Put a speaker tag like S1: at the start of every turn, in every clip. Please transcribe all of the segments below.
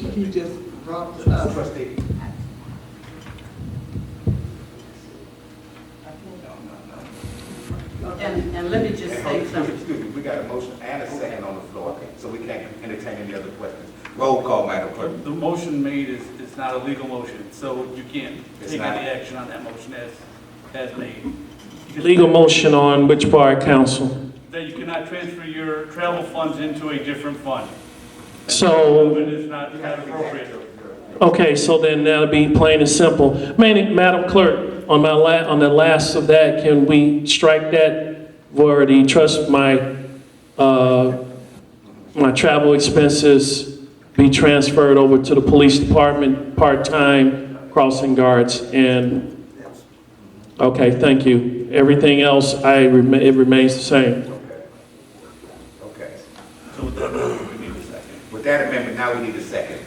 S1: you just brought up. Trustee.
S2: And, and let me just say something.
S3: Excuse me, we got a motion and a second on the floor, so we can entertain any other questions. Roll call, Madam Clerk.
S4: The motion made is, is not a legal motion, so you can't
S3: It's
S4: take
S3: not.
S4: any action on that motion as, as made. Because
S5: Legal motion on which part, council?
S4: That you cannot transfer your travel funds into a different fund.
S5: So-
S4: It is not not appropriate.
S5: Okay, so then that'll be plain and simple. Man- Madam Clerk, on my la, on the last of that, can we strike that where the trust, my, uh, my travel expenses be transferred over to the police department, part-time crossing guards and, okay, thank you. Everything else, I, rema- it remains the same.
S3: Okay.
S4: So with that, we need a second.
S3: With that amendment, now we need a second.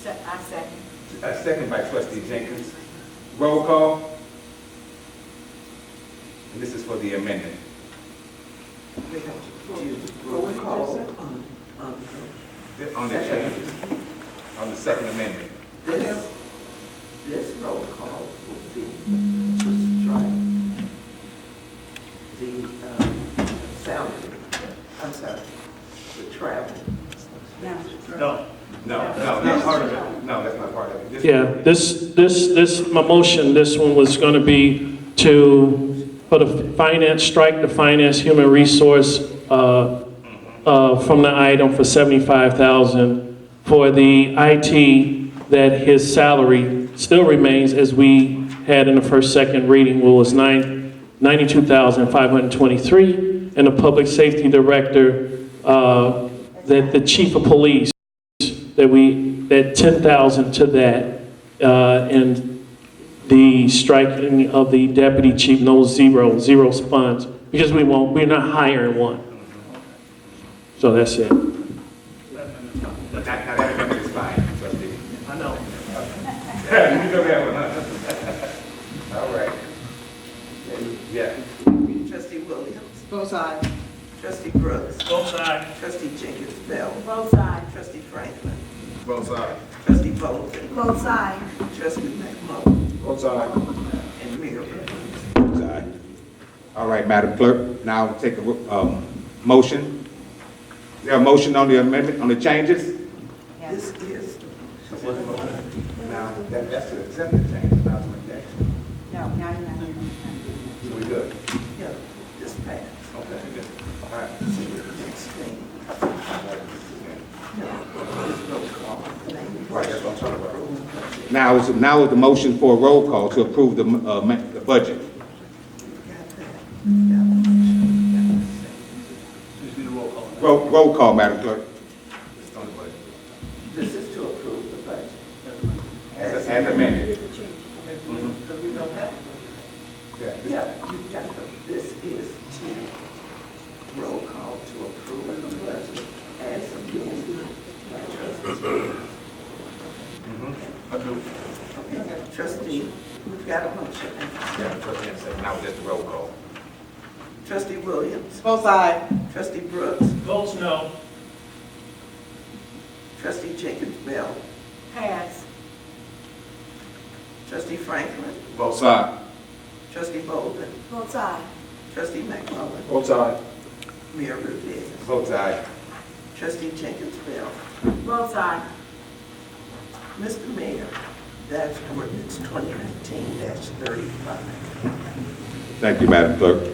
S2: Se- I second.
S3: A second by trustee Jenkins. Roll call. And this is for the amendment.
S1: Roll call. Um,
S3: On the changes, on the second amendment.
S1: This, this roll call will be to strike the um, salary, I'm sorry, the travel.
S4: No.
S3: No, no, not part of it. No, that's not part of it. This-
S5: Yeah, this, this, this, my motion, this one was going to be to, for the finance, strike the finance human resource uh, uh, from the item for 75,000 for the IT, that his salary still remains as we had in the first, second reading, well, was nine, 92,523, and the public safety director, uh, that the chief of police that we, that 10,000 to that, uh, and the striking of the deputy chief, no zero, zero funds, because we won't, we're not hiring one. So that's it.
S3: Now, now that amendment is fine, trustee.
S5: I know.
S3: You go that one, huh? All right. Yeah.
S1: Trustee Williams,
S2: Both sides.
S1: trustee Brooks,
S4: Both sides.
S1: trustee Jenkins Bell,
S2: Both sides.
S1: trustee Franklin,
S3: Both sides.
S1: trustee Bolden,
S2: Both sides.
S1: trustee McMullen,
S3: Both sides.
S1: and Mayor Burton.
S3: All right, Madam Clerk, now take a, ro- um, motion. Is There a motion on the amendment, on the changes?
S1: This is,
S3: Now, that, that's the accepted change, not the rejection.
S2: No, now you're not.
S3: So we good?
S1: yeah, this passed.
S3: Okay, good. All right.
S1: Next thing, no, this roll call.
S3: Right, that's what I'm talking about. Now, is, now is the motion for a roll call to approve the, uh, ma- the budget.
S4: Just need a roll call.
S3: Roll, roll call, Madam Clerk.
S1: This is to approve the budget.
S3: As, as amended.
S1: Because we don't have, yeah, you got to, this is to roll call to approve the budget as amended by trustee. Okay, Trustee, we've got a motion.
S3: Yeah, trustee, and second. now just the roll call.
S1: Trustee Williams,
S2: Both sides.
S1: trustee Brooks,
S4: Votes no.
S1: trustee Jenkins Bell,
S2: Pass.
S1: trustee Franklin,
S3: Both sides.
S1: trustee Bolden,
S2: Both sides.
S1: trustee McMullen,
S3: Both sides.
S1: Mayor Rudis,
S3: Both sides.
S1: trustee Jenkins Bell,
S2: Both sides.
S1: Mr. Mayor, that's ordinance twenty nineteen thirty-five.
S3: Thank you, Madam Clerk.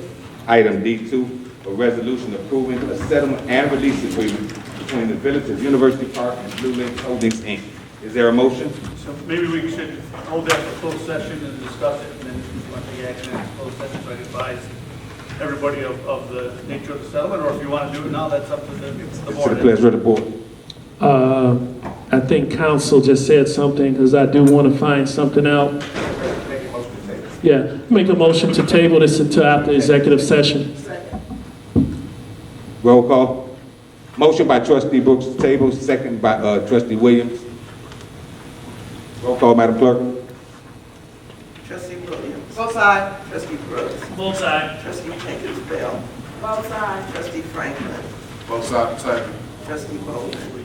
S3: Item D2, a resolution approving a settlement and release agreement between the Village of University Park and Blue Lake Holdings, Inc. Is there a motion?
S4: So maybe we should hold that for closed session and discuss it, and then if you want to take action in closed session, so I can advise everybody of, of the nature of the settlement, or if you want to do it now, that's up to the, the
S3: To the
S4: board.
S3: pleasure of the board.
S5: Uh, I think council just said something, because I do want to find something out. Yeah, make a motion to table this until after executive session.
S3: Roll call. Motion by trustee Brooks to table, second by uh, trustee Williams. Roll call, Madam Clerk.
S1: Trustee Williams,
S2: Both sides.
S1: trustee Brooks,
S4: Both sides.
S1: trustee Jenkins Bell,
S2: Both sides.
S1: trustee Franklin,
S3: Both sides.
S1: trustee Bowman,